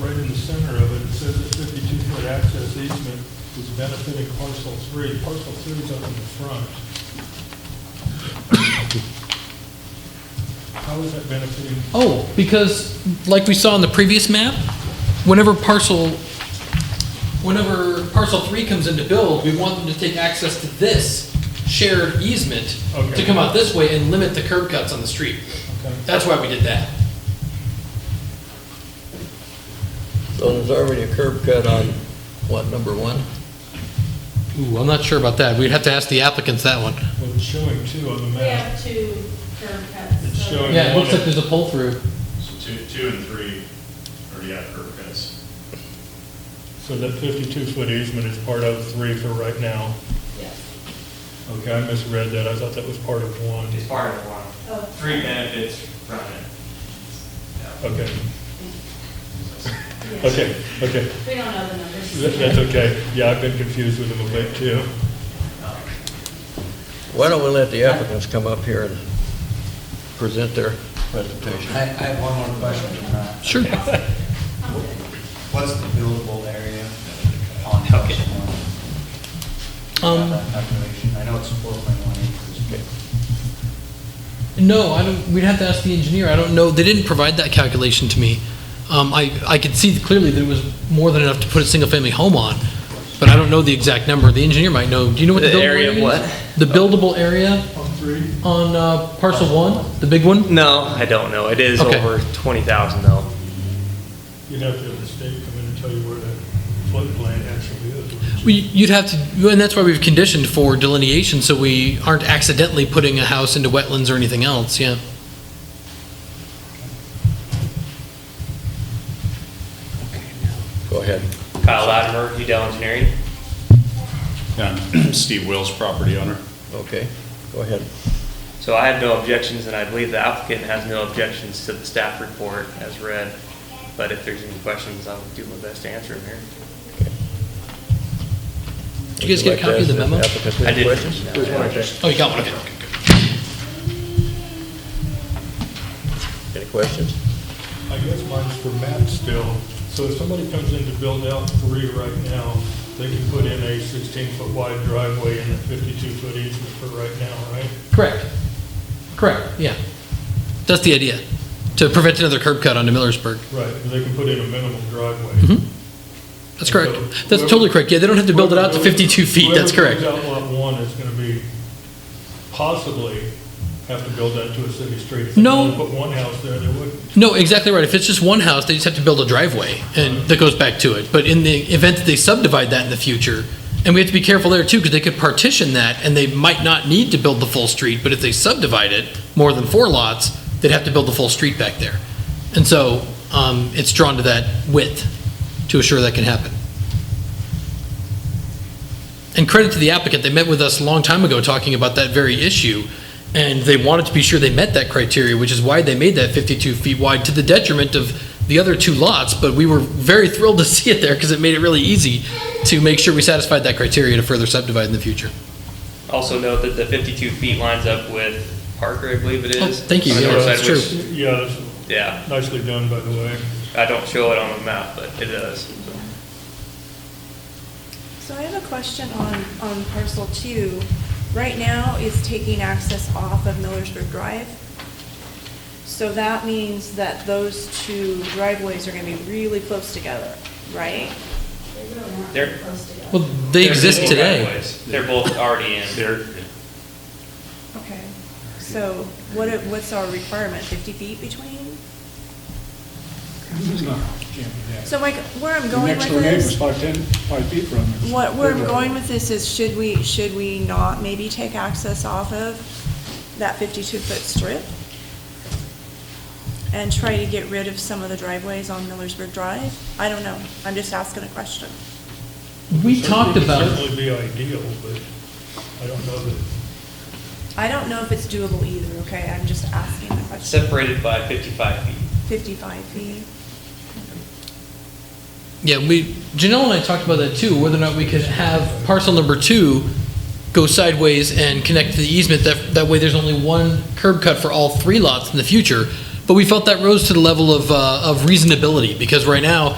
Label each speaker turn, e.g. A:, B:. A: center of it, it says a fifty-two foot access easement is benefiting parcel three. Parcel three's up in the front. How is that benefiting?
B: Oh, because like we saw in the previous map, whenever parcel, whenever parcel three comes into build, we want them to take access to this shared easement to
A: Okay.
B: come out this way and limit the curb cuts on the street.
A: Okay.
B: That's why we did that.
C: So there's already a curb cut on, what, number one?
B: Ooh, I'm not sure about that. We'd have to ask the applicants that one.
A: Well, it's showing two on the
D: We
A: map.
D: have two curb cuts.
A: It's
D: so-
A: showing-
B: Yeah, it looks like there's a pull through.
E: So two, two and three already have curb cuts.
A: So that fifty-two foot easement is part of three for right now.
D: Yes.
A: Okay, I misread that. I thought that was part of one.
F: It's part of one.
D: Oh.
F: Three benefits from it. Yeah.
A: Okay,
D: Yes.
A: okay, okay.
D: We don't know the numbers.
A: That- That's okay. Yeah, I've been confused with them a bit too.
C: Why don't we let the applicants come up here and present their presentation?
G: I, I have one more question. uh,
B: Sure.
G: What's the buildable area on House One?
B: Um,
G: That calculation, I know it's four point one acres.
B: No, I don't, we'd have to ask the engineer. I don't know. They didn't provide that calculation to me. Um, I, I could see clearly that it was more than enough to put a single-family home on, but I don't know the exact number. The engineer might know. Do you know what the
C: The
B: buildable
C: area
B: area
C: of
B: is?
C: what?
B: The buildable area
A: On Oh, three?
B: on uh, parcel one, the big one?
H: No, I don't know. It is
B: Okay.
H: over 20,000 though.
A: You'd have to have the state come in and tell you where that floodplain actually is. wouldn't you?
B: Well, You'd have to, and that's why we've conditioned for delineation, so we aren't accidentally putting a house into wetlands or anything else, yeah.
C: Go ahead.
H: Kyle Latimer, Udell Engineering.
E: Yeah, Steve Wills, property owner.
C: Okay, go ahead.
H: So I have no objections, and I believe the applicant has no objections to the staff report as read. But if there's any questions, I'll do my best to answer them here.
B: Did you guys get
C: Would
B: a
C: like to
B: copy of the
C: ask
B: memo?
C: applicants any
H: I did.
C: questions?
B: Oh, you got one, okay.
C: Any questions?
A: I guess mine's for Matt still. So if somebody comes in to build out three right now, they can put in a sixteen foot wide driveway and a fifty-two foot easement for right now, right?
B: Correct. Correct, yeah. That's the idea, to prevent another curb cut onto Millersburg.
A: Right, and they can put in a minimum driveway.
B: Mhm. That's correct.
A: So
B: That's
A: whoever-
B: totally correct. Yeah, they don't have to build it out to
A: whoever-
B: 52 feet. That's correct.
A: Whoever builds out lot one is gonna be, possibly have to build that to a city street. If they
B: No.
A: only Put one house there, they wouldn't.
B: No, exactly right. If it's just one house, they just have to build a driveway and that goes back to it. But in the event that they subdivide that in the future, and we have to be careful there too, because they could partition that and they might not need to build the full street, but if they subdivide it more than four lots, they'd have to build the full street back there. And so, um, it's drawn to that width to assure that can happen. And credit to the applicant, they met with us a long time ago talking about that very issue, and they wanted to be sure they met that criteria, which is why they made that 52 feet wide to the detriment of the other two lots, but we were very thrilled to see it there because it made it really easy to make sure we satisfied that criteria to further subdivide in the future.
H: Also note that the 52 feet lines up with Parker, I believe it
B: Oh,
H: is.
B: thank you.
H: on the
B: Yeah,
H: north
B: that's
H: side, which-
B: true.
A: Yeah, that's
H: Yeah,
A: nicely done, by the way.
H: I don't show it on the map, but it does.
I: So I have a question on, on parcel two. Right now, it's taking access off of Millersburg Drive. So that means that those two driveways are gonna be really close together, right?
D: They really aren't
H: They're-
D: close together.
B: Well, they
H: They're
B: exist
H: both
B: today.
H: driveways. They're both already in.
E: There,
I: Okay. So what, it- what's our requirement, fifty feet between? So like, where I'm going with this,
A: five ten, five feet from us.
I: what, where I'm going with this is, should we, should we not maybe take access off of that fifty-two foot strip? And try to get rid of some of the driveways on Millersburg Drive? I don't know, I'm just asking a question.
B: We talked about it.
A: Certainly be ideal, but I don't know that,
I: I don't know if it's doable either, okay, I'm just asking a question.
H: Separated by 55 feet.
I: Fifty-five feet,
B: Yeah, we, Janelle and I talked about that too, whether or not we could have parcel number two go sideways and connect to the easement, that, that way there's only one curb cut for all three lots in the future. But we felt that rose to the level of, uh, of reasonability, because right now,